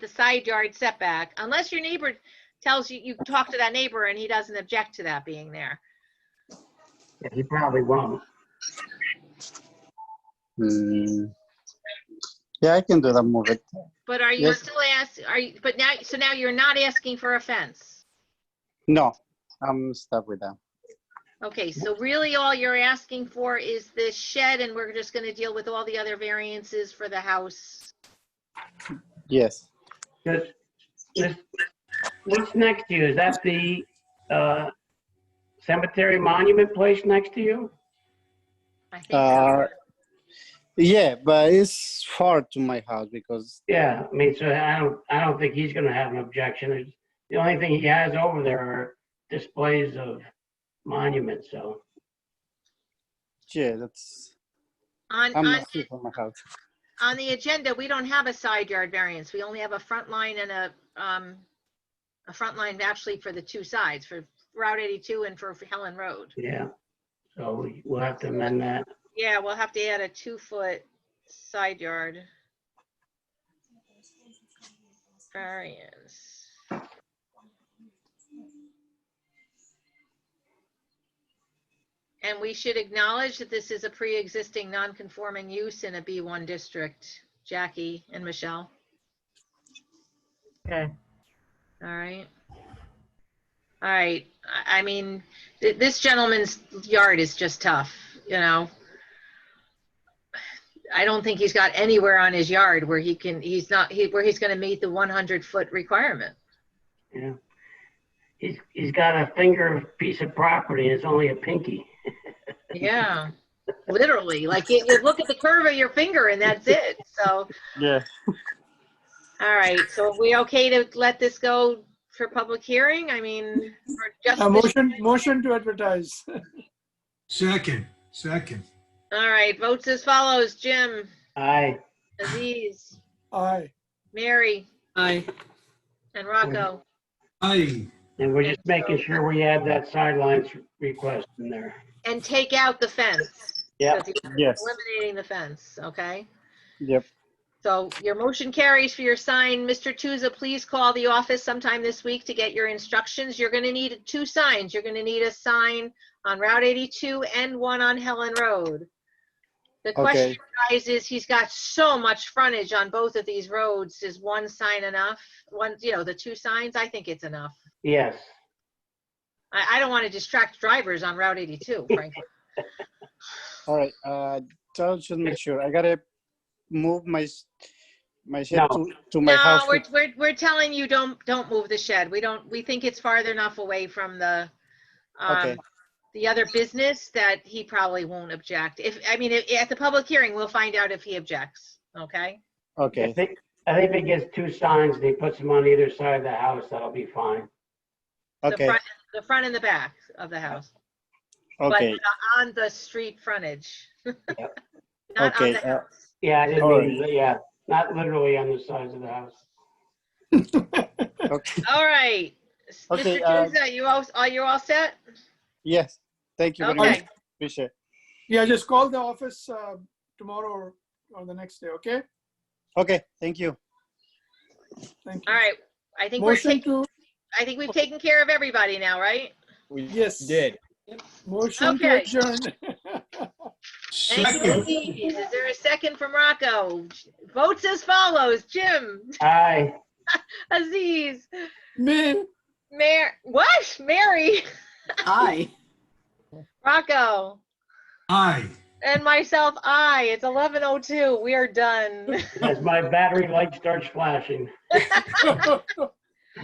the side yard setback, unless your neighbor tells you, you talk to that neighbor and he doesn't object to that being there. Yeah, He probably won't. Hmm. Yeah, I can do that, move it. But are you Yes. still ask, are you, but now, so now you're not asking for a fence? No, I'm stuck with that. Okay, so really all you're asking for is this shed and we're just gonna deal with all the other variances for the house. Yes, Just, just, what's next to you? Is that the, uh, cemetery monument place next to you? I think Uh, so. yeah, but it's far to my house because Yeah, I mean, so I don't, I don't think he's gonna have an objection. It's- The only thing he has over there are displays of monuments, so. yeah, that's On, I'm on, not free from my house. on the agenda, we don't have a side yard variance. We only have a front line and a, um, a front line actually for the two sides, for Route 82 and for Helen Road. Yeah, so we- we'll have to amend that. Yeah, we'll have to add a two-foot side yard. Variance. And we should acknowledge that this is a pre-existing non-conforming use in a B1 district, Jackie and Michelle. Okay. All right. All right, I, I mean, th- this gentleman's yard is just tough, you know? I don't think he's got anywhere on his yard where he can, he's not, he, where he's gonna meet the one hundred foot requirement. Yeah. He's, he's got a finger piece of property and it's only a pinky. Yeah, literally, like you, you look at the curve of your finger and that's it, so, Yeah, all right, so are we okay to let this go for public hearing? I mean, for just. A this- Uh, motion, motion to advertise. Second, second. All right, votes as follows, Jim, Aye. Aziz, Aye. Mary, Aye. and Rocco. Aye. And we're just making sure we add that sidelines request in there. And take out the fence. Yeah. 'Cause you're yes, Eliminating the fence, okay? yep, So your motion carries for your sign. Mr. Tuzza, please call the office sometime this week to get your instructions. You're gonna need two signs. You're gonna need a sign on Route 82 and one on Helen Road. The question okay, is, he's got so much frontage on both of these roads. Is one sign enough? One, you know, the two signs? I think it's enough. Yes. I, I don't want to distract drivers on Route 82, frankly. all right. Uh, I'll just make sure. I gotta move my s- my shed No. to, to my No, house. we're, we're, we're telling you, don't, don't move the shed. We don't, we think it's farther enough away from the, um, Okay. the other business that he probably won't object. If, I mean, if- at the public hearing, we'll find out if he objects, okay? I Okay, think, I think if he gets two signs and he puts them on either side of the house, that'll be fine. The okay, front- The front and the back of the house, but okay, on the street frontage. Not on okay. the uh, house. Yeah, I didn't mean, yeah, not literally on the sides of the house. okay. All right. S- Okay, Mr. uh, Juza, you all, are you all set? Yes, thank you very much. Okay, Appreciate. it. Yeah, just call the office uh, tomorrow or- or the next day, okay? Okay, thank you. Thank you. all right. I think we're Motion taking, to, I think we've taken care of everybody now, right? yes. Did. Motion to Okay. adjourn. Thank you, Second. Aziz. Is there a second from Rocco? Votes as follows, Jim, Aye. Aziz, Me, Mar, what? Mary, Aye. Rocco, Aye. and myself, I. It's 11:02. We are done. As my battery light starts flashing. Good